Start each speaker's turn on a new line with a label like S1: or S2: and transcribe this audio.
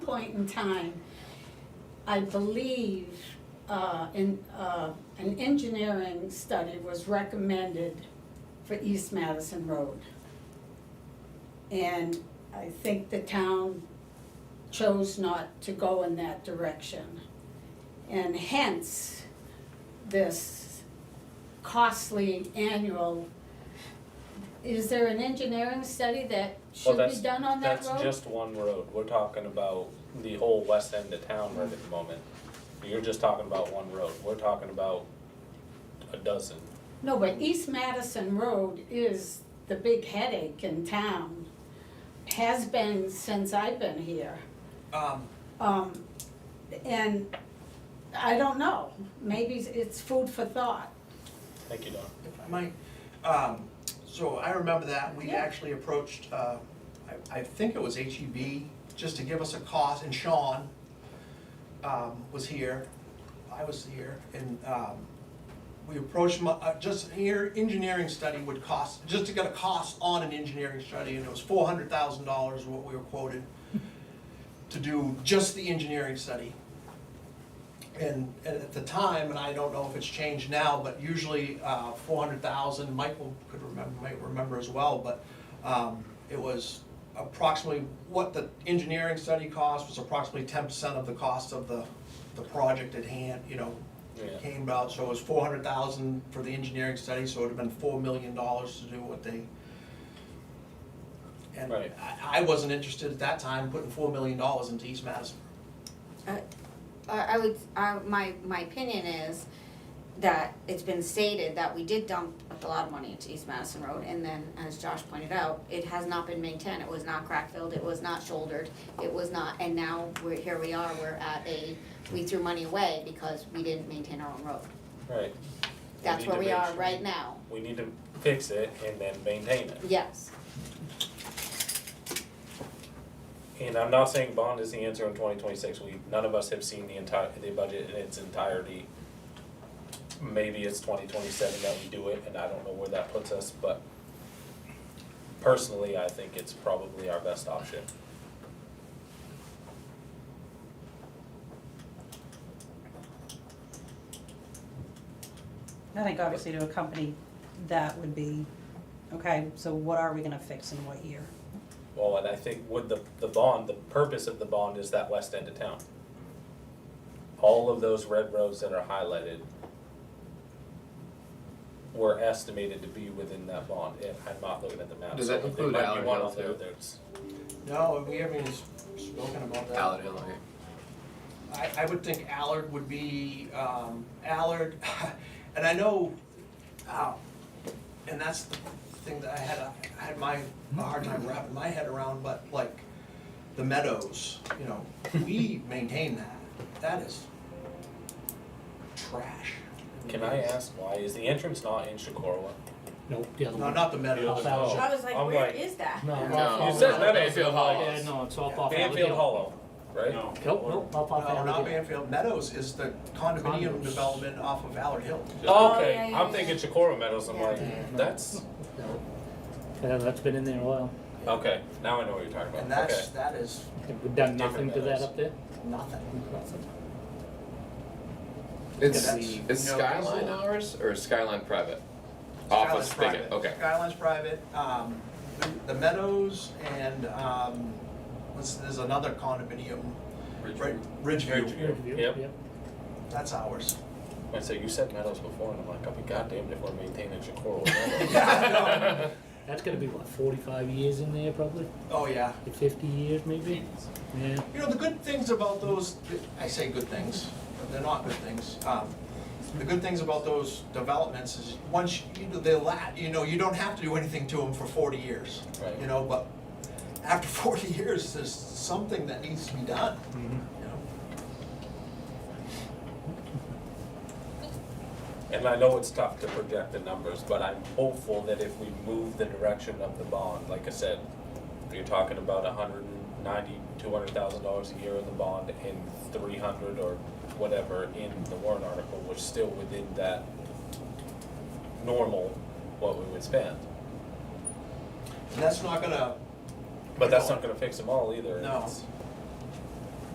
S1: point in time, I believe, uh, in, uh, an engineering study was recommended for East Madison Road. And I think the town chose not to go in that direction. And hence, this costly annual, is there an engineering study that should be
S2: that's-
S1: done on that road?
S2: That's just one road, we're talking about the whole west end of town right at the moment. You're just talking about one road, we're talking about a dozen.
S1: No, but East Madison Road is the big headache in town, has been since I've been here.
S3: Um,
S1: Um, and I don't know, maybe it's food for thought.
S2: Thank you, Don.
S3: if I might, um, so I remember that, we
S1: Yeah.
S3: actually approached, uh, I, I think it was HEB, just to give us a cost, and Sean, um, was here, I was here, and, um, we approached, mu- uh, just here, engineering study would cost, just to get a cost on an engineering study, and it was four hundred thousand dollars what we were quoted to do just the engineering study. And and at the time, and I don't know if it's changed now, but usually uh, four hundred thousand, Michael could remember, might remember as well, but um, it was approximately, what the engineering study cost was approximately ten percent of the cost of the, the project at hand, you know,
S2: Yeah.
S3: came about, so it was four hundred thousand for the engineering study, so it would have been four million dollars to do what they. And I,
S2: Right.
S3: I wasn't interested at that time putting four million dollars into East Madison.
S4: Uh, I I would, I, my, my opinion is that it's been stated that we did dump a lot of money into East Madison Road, and then, as Josh pointed out, it has not been maintained, it was not crack filled, it was not shouldered, it was not, and now we're, here we are, we're at a, we threw money away because we didn't maintain our own road.
S2: Right.
S4: That's
S2: need
S4: where
S2: to
S4: we
S2: make
S4: are
S2: sure-
S4: right now,
S2: We need to fix it and then maintain it.
S4: yes,
S2: And I'm not saying bond is the answer in twenty twenty-six, we, none of us have seen the entire, the budget in its entirety. Maybe it's twenty twenty-seven that we do it, and I don't know where that puts us, but personally, I think it's probably our best option.
S5: I think obviously to accompany that would be, okay, so what are we gonna fix in what year?
S2: Well, and I think with the, the bond, the purpose of the bond is that west end of town. All of those red roads that are highlighted were estimated to be within that bond, and I'm not looking at the map,
S6: Does
S2: so
S6: that
S2: there
S6: include
S2: might be
S6: Allard
S2: one
S6: Hill
S2: out there
S6: too?
S2: that's-
S3: No, we haven't even spoken about that.
S6: Allard Hill, okay.
S3: I, I would think Allard would be, um, Allard, and I know, um, and that's the thing that I had, a- I had my, a hard time wrapping my head around, but like, the meadows, you know, we maintain that, that is trash.
S2: Can I ask why, is the entrance not in Shakora?
S7: Nope, the other
S3: No,
S7: one.
S3: not the meadows.
S7: The other one.
S2: I
S8: was
S2: like, Oh, I'm where like-
S8: is that?
S7: No,
S6: No.
S7: Mount Paul
S2: You said
S7: Valley.
S2: that ain't Bill
S7: Yeah,
S2: Hollis.
S7: no, it's all off Allard
S2: Banfield
S7: Hill.
S2: Hollow, right?
S7: No, nope, off off
S3: No,
S7: Allard
S3: not
S7: Hill.
S3: Banfield, Meadows is the condominium
S7: Condos.
S3: development off of Allard Hill.
S2: Oh,
S1: Oh,
S2: okay,
S1: yeah, yeah,
S2: I'm
S1: yeah.
S2: thinking Shakora Meadows, I'm
S8: Yeah.
S2: like,
S7: No.
S2: that's,
S7: No. Yeah, that's been in there a while.
S2: okay, now I know what you're talking
S3: And
S2: about, okay.
S3: that's, that is
S7: We've done nothing
S2: Different
S7: to that
S2: meadows.
S7: up there?
S3: nothing.
S7: Nothing.
S6: It's,
S3: That's-
S6: it's
S3: no,
S6: Skyline
S3: that's-
S6: ours or Skyline private?
S3: Skyline's
S6: Office spigot,
S3: private.
S6: okay.
S3: Skyline's private, um, the Meadows and, um, what's, there's another condominium, right, Ridgeview,
S2: Ridgeview, yep.
S3: that's ours.
S2: I said, you said Meadows before, and I'm like, I'll be goddamned if we're maintaining Jacoro.
S3: Yeah,
S7: That's gonna be what, forty-five years in there probably?
S3: Oh, yeah.
S7: Fifty years maybe? Yeah.
S3: You know, the good things about those, I say good things, but they're not good things. Um, The good things about those developments is, once, you know, they la, you know, you don't have to do anything to them for forty years.
S2: Right.
S3: You know, but after forty years, there's something that needs to be done, you know?
S2: And I know it's tough to project the numbers, but I'm hopeful that if we move the direction of the bond, like I said, you're talking about a hundred and ninety, two hundred thousand dollars a year in the bond and three hundred or whatever in the warrant article, we're still within that normal, what we would spend.
S3: And that's not gonna,
S2: But that's not gonna fix them all either.
S3: No.
S2: It's-